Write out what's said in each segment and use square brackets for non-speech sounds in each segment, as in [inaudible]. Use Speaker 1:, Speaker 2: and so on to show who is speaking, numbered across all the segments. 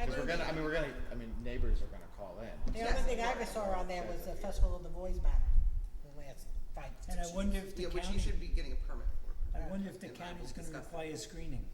Speaker 1: gonna, I mean, we're gonna, I mean, neighbors are gonna call in.
Speaker 2: The only thing I ever saw on there was the Festival of the Boys Battle, the last fight.
Speaker 3: And I wonder if the
Speaker 4: Yeah, which you
Speaker 3: county,
Speaker 4: should be getting a permit for.
Speaker 3: I wonder if the
Speaker 4: And I will
Speaker 3: county's gonna
Speaker 4: discuss that.
Speaker 3: require screening.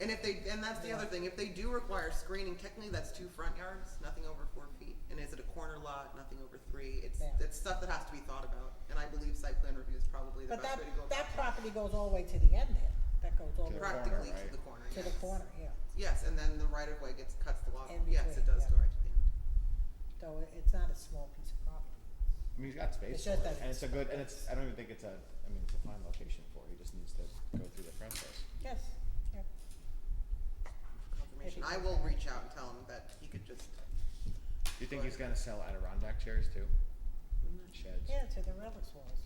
Speaker 4: And if they, and that's the other thing, if they do require screening, technically that's two front yards, nothing over four feet. And is it a corner lot, nothing over three? It's,
Speaker 2: Yeah.
Speaker 4: that's stuff that has to be thought about. And I believe site plan review is probably the
Speaker 2: But
Speaker 4: best
Speaker 2: that,
Speaker 4: way to go about
Speaker 2: that
Speaker 4: it.
Speaker 2: property goes all the way to the end there, that goes all the
Speaker 1: To
Speaker 2: way
Speaker 1: corner,
Speaker 4: Practically
Speaker 1: right?
Speaker 4: to the corner,
Speaker 2: to the
Speaker 4: yes.
Speaker 2: corner, yeah.
Speaker 4: Yes, and then the right of way gets, cuts the lot.
Speaker 2: In
Speaker 4: Yes, it
Speaker 2: between,
Speaker 4: does
Speaker 2: yeah.
Speaker 4: go right to the end.
Speaker 2: So it- it's not a small piece of property.
Speaker 1: I mean, he's got space
Speaker 2: It's
Speaker 1: for it,
Speaker 2: just that
Speaker 1: and it's a
Speaker 2: it's-
Speaker 1: good, and it's, I don't even think it's a, I mean, it's a fine location for it, he just needs to go through the process.
Speaker 2: Yes, yeah.
Speaker 4: Confirmation.
Speaker 2: Maybe.
Speaker 4: I will reach out and tell him that he could just,
Speaker 1: Do you think he's gonna sell Adirondack chairs too? Sheds?
Speaker 2: Yeah, to the relics walls.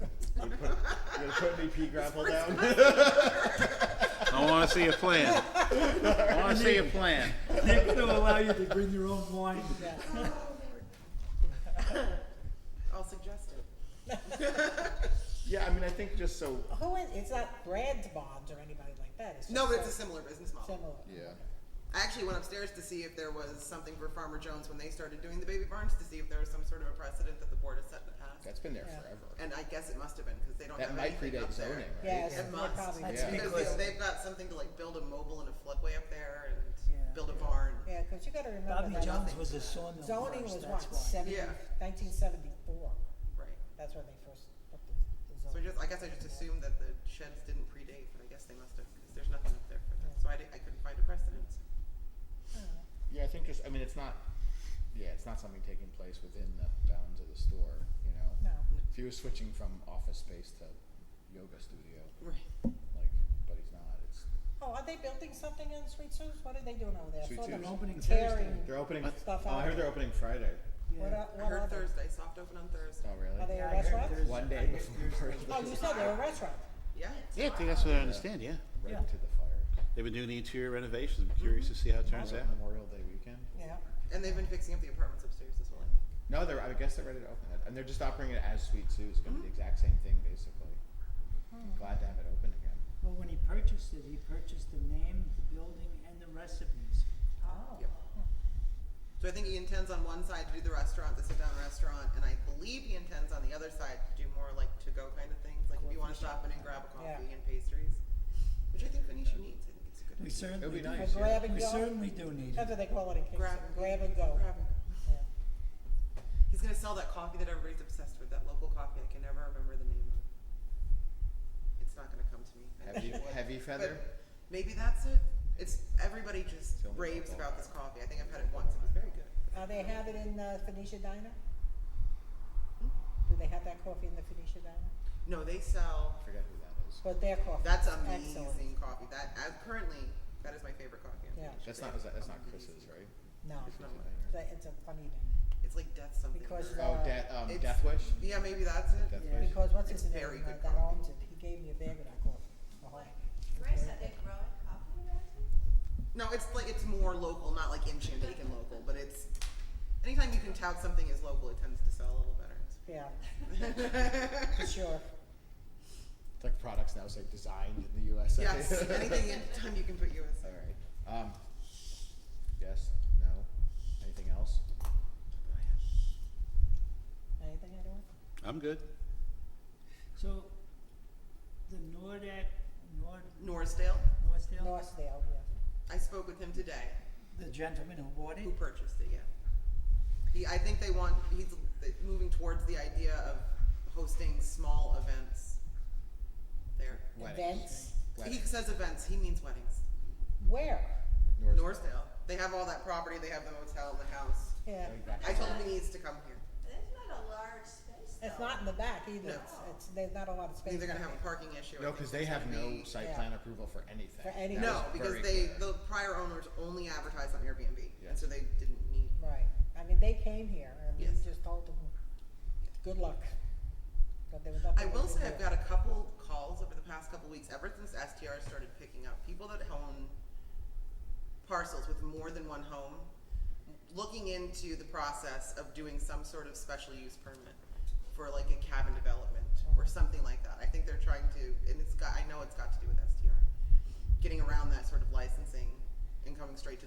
Speaker 1: You put, you gonna put any pea gravel down? [laughs]
Speaker 5: I wanna see a plan. I wanna see a plan.
Speaker 3: [laughs] They're gonna allow you to bring your own wine.
Speaker 2: Yeah.
Speaker 4: I'll suggest it.
Speaker 1: Yeah, I mean, I think just so,
Speaker 2: Who is, it's not Brad's Bonds or anybody like that, it's just.
Speaker 4: No, but it's a
Speaker 2: so
Speaker 4: similar business model.
Speaker 2: Similar.
Speaker 1: yeah,
Speaker 4: I actually went upstairs to see if there was something for Farmer Jones when they started doing the baby barns, to see if there was some sort of a precedent that the board has set in the past.
Speaker 1: that's been there
Speaker 2: Yeah.
Speaker 1: forever.
Speaker 4: And I guess it must have been, because they don't
Speaker 1: That
Speaker 4: have
Speaker 1: might
Speaker 4: anything
Speaker 1: predate
Speaker 4: up
Speaker 1: zoning,
Speaker 4: there.
Speaker 1: right?
Speaker 2: Yes,
Speaker 4: It
Speaker 2: they
Speaker 4: must.
Speaker 2: probably
Speaker 3: That's
Speaker 2: do.
Speaker 3: big.
Speaker 4: Because
Speaker 3: Because-
Speaker 4: they, they've got something to like build a mobile and a floodway up there
Speaker 3: Yeah.
Speaker 4: and build a barn.
Speaker 2: Yeah, cause you gotta remember
Speaker 3: Bobby
Speaker 2: that.
Speaker 3: Jones was a sawmill
Speaker 2: Zoning was
Speaker 3: first,
Speaker 2: what,
Speaker 3: that's why.
Speaker 2: seventy,
Speaker 4: Yeah.
Speaker 2: nineteen seventy-four,
Speaker 4: Right.
Speaker 2: that's when they first put the, the
Speaker 4: So I
Speaker 2: zoning.
Speaker 4: just, I guess I just assumed that the sheds didn't predate, but I guess they must have, because there's nothing up there for that. So I, di- I couldn't find a precedent.
Speaker 2: Oh.
Speaker 1: Yeah, I think just, I mean, it's not, yeah, it's not something taking place within the bounds of the store, you know?
Speaker 2: No,
Speaker 1: If he was switching from office space to yoga studio,
Speaker 4: Right.
Speaker 1: like, but he's not, it's,
Speaker 2: oh, are they building something in Sweet Sue's, what are they doing over there? I
Speaker 1: Sweet
Speaker 2: saw them
Speaker 1: Sue's.
Speaker 3: Opening
Speaker 2: tearing-
Speaker 1: they're opening, oh,
Speaker 2: Stuff
Speaker 1: I
Speaker 2: out.
Speaker 1: heard they're opening Friday.
Speaker 2: What, are-
Speaker 3: Yeah.
Speaker 4: I
Speaker 2: what are
Speaker 4: heard
Speaker 2: they?
Speaker 4: Thursday, soft open on Thursday.
Speaker 1: Oh, really?
Speaker 2: Are they
Speaker 3: Yeah, I
Speaker 2: a
Speaker 3: heard
Speaker 2: restaurant?
Speaker 3: there's-
Speaker 1: One
Speaker 3: I
Speaker 1: day
Speaker 3: heard
Speaker 1: before.
Speaker 3: there's-
Speaker 2: Oh, you said they're a restaurant,
Speaker 4: Yeah.
Speaker 5: Yeah, I think that's what I understand, yeah.
Speaker 1: Right
Speaker 3: Yeah.
Speaker 1: to the fire.
Speaker 5: They've been doing the interior renovations. I'm curious to see how it turns out.
Speaker 1: Memorial Day weekend.
Speaker 2: yeah,
Speaker 4: And they've been fixing up the apartments upstairs as well.
Speaker 1: No, they're. I guess they're ready to open it, and they're just operating it as Sweet Sue. It's going
Speaker 4: Mm-hmm.
Speaker 1: to be the exact same thing, basically.
Speaker 4: Hmm.
Speaker 1: I'm glad to have it open again.
Speaker 3: Well, when he purchased it, he purchased the name, the building, and the recipes.
Speaker 2: oh.
Speaker 4: Yep. So I think he intends on one side to do the restaurant, the sit-down restaurant, and I believe he intends on the other side to do more like to-go kind of things, like if you wanna stop in and grab a coffee
Speaker 2: Yeah.
Speaker 4: and pastries, which I think Venetia needs, I think it's a good
Speaker 1: It
Speaker 3: We
Speaker 4: idea.
Speaker 1: would
Speaker 3: certainly
Speaker 1: be
Speaker 3: do.
Speaker 2: A
Speaker 1: nice. yeah.
Speaker 2: grab and
Speaker 3: We
Speaker 2: go,
Speaker 3: certainly do need
Speaker 2: that's
Speaker 3: it.
Speaker 2: what they call it in Kingston,
Speaker 4: Grab and
Speaker 2: grab and go.
Speaker 4: Grab and go.
Speaker 2: Yeah.
Speaker 4: He's gonna sell that coffee that everybody's obsessed with, that local coffee, I can never remember the name of. It's not gonna come to me. I [laughs]
Speaker 1: Heavy,
Speaker 4: wish it would.
Speaker 1: heavy feather.
Speaker 4: But Maybe that's it, it's, everybody just
Speaker 1: It's the only
Speaker 4: raves
Speaker 1: local
Speaker 4: about this coffee, I think I've had it once, it was very good.
Speaker 2: Are they have it in uh, Phoenicia Diner? Do they have that coffee in the Phoenicia Diner?
Speaker 4: No, they sell,
Speaker 1: I forget who that is.
Speaker 2: But their coffee.
Speaker 4: That's
Speaker 2: is
Speaker 4: amazing
Speaker 2: excellent.
Speaker 4: coffee. That I, currently, that is my favorite coffee. I'm
Speaker 2: Yeah.
Speaker 4: pretty
Speaker 1: That's
Speaker 4: sure.
Speaker 1: not. Is that, that's not Chris's,
Speaker 4: Uh,
Speaker 1: right?
Speaker 2: No,
Speaker 1: Chris's
Speaker 4: No.
Speaker 1: designer.
Speaker 2: that- it's a funny name,
Speaker 4: It's like death something.
Speaker 2: Because that-
Speaker 4: or-
Speaker 1: Oh, death. Um,
Speaker 4: It's-
Speaker 1: Death Wish.
Speaker 4: yeah, maybe that's it.
Speaker 1: Death
Speaker 3: Yeah.
Speaker 1: Wish.
Speaker 2: because what's
Speaker 4: It's
Speaker 2: his name,
Speaker 4: very
Speaker 2: uh,
Speaker 4: good
Speaker 2: that
Speaker 4: coffee.
Speaker 2: owns it, he gave me a bag of that coffee, the whole.
Speaker 6: Chris, are they growing coffee in Madison?
Speaker 4: No, it's like it's more local, not like in Shandaken local, but it's anytime you can tout something as local, it tends to sell a
Speaker 1: [laughs]
Speaker 4: little better.
Speaker 2: Yeah, for sure,
Speaker 1: It's like products now say designed in the USA.
Speaker 4: yes,
Speaker 1: [laughs]
Speaker 4: anything anytime you can put USA.
Speaker 1: All right. Um. Yes. No. Anything else?
Speaker 2: anything I don't,
Speaker 5: I'm good.
Speaker 3: So, the Nordat, Nord,
Speaker 4: Norsdale.
Speaker 3: Northdale,
Speaker 2: Northdale, yeah,
Speaker 4: I spoke with him today.
Speaker 3: the gentleman who bought it,
Speaker 4: Who purchased it? Yeah. He, I think they want. He's moving towards the idea of hosting small events. There.
Speaker 1: Weddings.
Speaker 2: events,
Speaker 4: He
Speaker 1: Weddings.
Speaker 4: says events, he means weddings.
Speaker 2: where?
Speaker 1: North-
Speaker 4: Norrisdale. They have all that property, they have the motel and the house.
Speaker 2: Yeah,
Speaker 1: Going back
Speaker 4: I
Speaker 1: to-
Speaker 4: told him he needs to come here.
Speaker 6: That's not a large space though.
Speaker 2: it's not in the back either,
Speaker 4: No.
Speaker 2: it's, it's, there's not a lot of
Speaker 4: I
Speaker 2: space.
Speaker 4: think they're gonna
Speaker 2: back
Speaker 4: have a parking issue. I
Speaker 1: No,
Speaker 4: think
Speaker 1: because they
Speaker 4: there's
Speaker 1: have
Speaker 4: gonna
Speaker 1: no
Speaker 4: be-
Speaker 1: site
Speaker 2: Yeah.
Speaker 1: plan approval for anything.
Speaker 2: For anything.
Speaker 1: That
Speaker 4: No,
Speaker 1: was
Speaker 4: because
Speaker 1: very
Speaker 4: they,
Speaker 1: clear.
Speaker 4: the prior owners only advertised on Airbnb,
Speaker 1: Yeah.
Speaker 4: and so they didn't need,
Speaker 2: there. Right, I mean, they came here, and we
Speaker 4: Yes.
Speaker 2: just told them, good luck, but there was nothing.
Speaker 4: I
Speaker 2: we
Speaker 4: will
Speaker 2: could do.
Speaker 4: say I've got a couple calls over the past couple weeks, ever since STR started picking up, people that own parcels with more than one home, looking into the process of doing some sort of special use permit for like a cabin development or something like that. I think they're trying to, and it's got, I know it's got to do with STR, getting around that sort of licensing and coming straight to